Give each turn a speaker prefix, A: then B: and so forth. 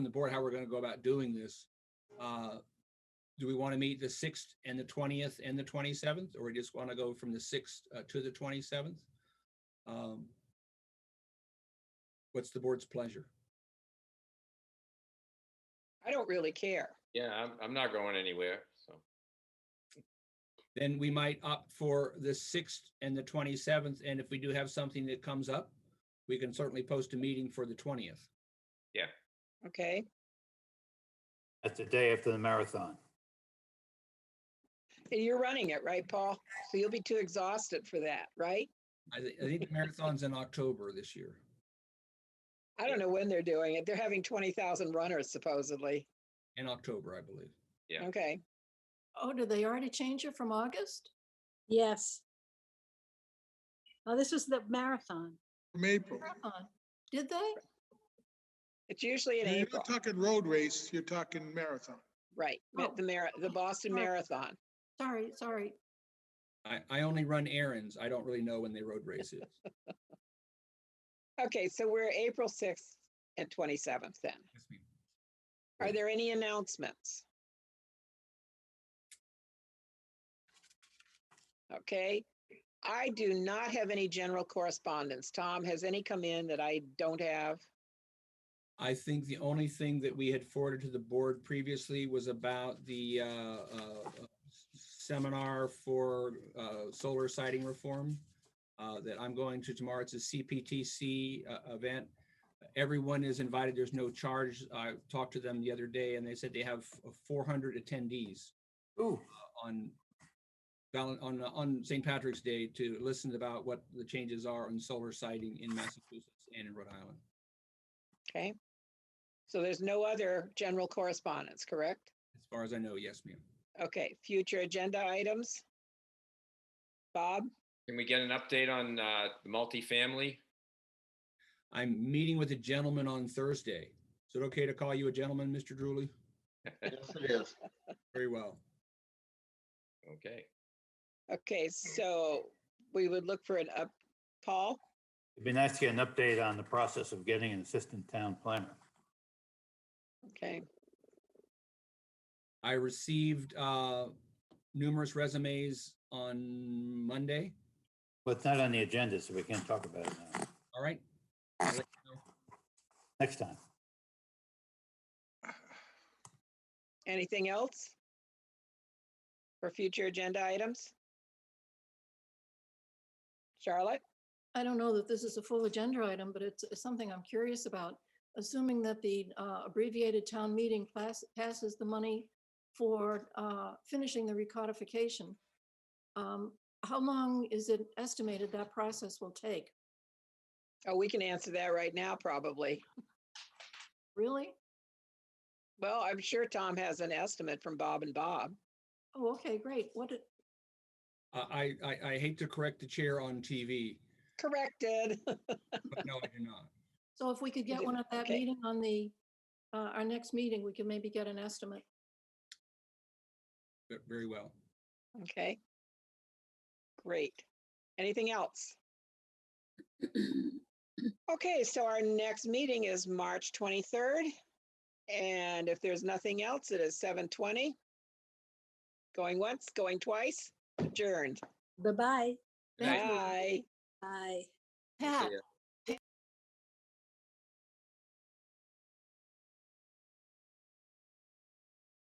A: the board how we're going to go about doing this. Uh, Do we want to meet the 6th and the 20th and the 27th, or we just want to go from the 6th uh, to the 27th? Um, What's the board's pleasure?
B: I don't really care.
C: Yeah, I'm, I'm not going anywhere, so.
A: Then we might opt for the 6th and the 27th, and if we do have something that comes up, we can certainly post a meeting for the 20th.
B: Okay.
D: That's the day after the marathon.
B: And you're running it, right, Paul? So you'll be too exhausted for that, right?
A: I thi- I think the marathon's in October this year.
B: I don't know when they're doing it. They're having 20,000 runners supposedly.
A: in October, I believe.
C: Yeah.
B: Okay.
E: Oh, did they already change it from August?
F: Yes. Oh, this was the marathon.
G: From April.
E: Marathon. Did they?
B: It's usually in
G: You're
B: April,
G: not talking road race, you're talking marathon.
B: right? ma-
E: Oh.
B: The Mar, the Boston
E: Sorry.
B: Marathon.
E: Sorry, sorry.
A: I, I only run errands. I don't really know when the road race is.
B: Okay, so we're April 6th and 27th then.
A: Yes, ma'am.
B: Are there any announcements? Okay, I do not have any general correspondence. Tom, has any come in that I don't have?
A: I think the only thing that we had forwarded to the board previously was about the uh, uh, seminar for uh, solar siding reform uh, that I'm going to tomorrow. It's a CPTC uh, event. Everyone is invited. There's no charge. I talked to them the other day and they said they have 400 attendees.
D: Ooh,
A: on Valen, on, uh, on St. Patrick's Day to listen about what the changes are on solar siting in Massachusetts and in Rhode Island.
B: Okay. So there's no other general correspondence, correct?
A: As far as I know, yes, ma'am.
B: Okay, future agenda items? Bob,
C: Can we get an update on uh, the multifamily?
A: I'm meeting with a gentleman on Thursday. Is it okay to call you a gentleman, Mr. Drooly? Very well.
C: Okay.
B: okay, so we would look for an up, Paul?
D: it'd be nice to get an update on the process of getting an assistant town planner.
B: Okay,
A: I received uh, numerous resumes on Monday.
D: But it's not on the agenda, so we can't talk about it now.
A: All right.
D: Next time.
B: anything else? For future agenda items? Charlotte,
E: I don't know that this is a full agenda item, but it's it's something I'm curious about. Assuming that the uh, abbreviated town meeting pass- passes the money for uh, finishing the recodification, um, how long is it estimated that process will take?
B: oh, we can answer that right now, probably.
E: Really?
B: Well, I'm sure Tom has an estimate from Bob and Bob.
E: Oh, okay, great. What, did-
A: I, I, I- I hate to correct the chair on TV,
B: Corrected.
A: but no, I do not.
E: so if we could get
B: did-
E: one at that
B: okay.
E: meeting on the, uh, our next meeting, we can maybe get an estimate.
A: But very well.
B: Okay. Great. Anything else? Okay, so our next meeting is March 23rd. And if there's nothing else, it is 7:20. Going once, going twice, adjourned.
F: Bye-bye.
C: Good night.
B: Bye.
F: Bye.
C: See
E: Pat,
C: ya.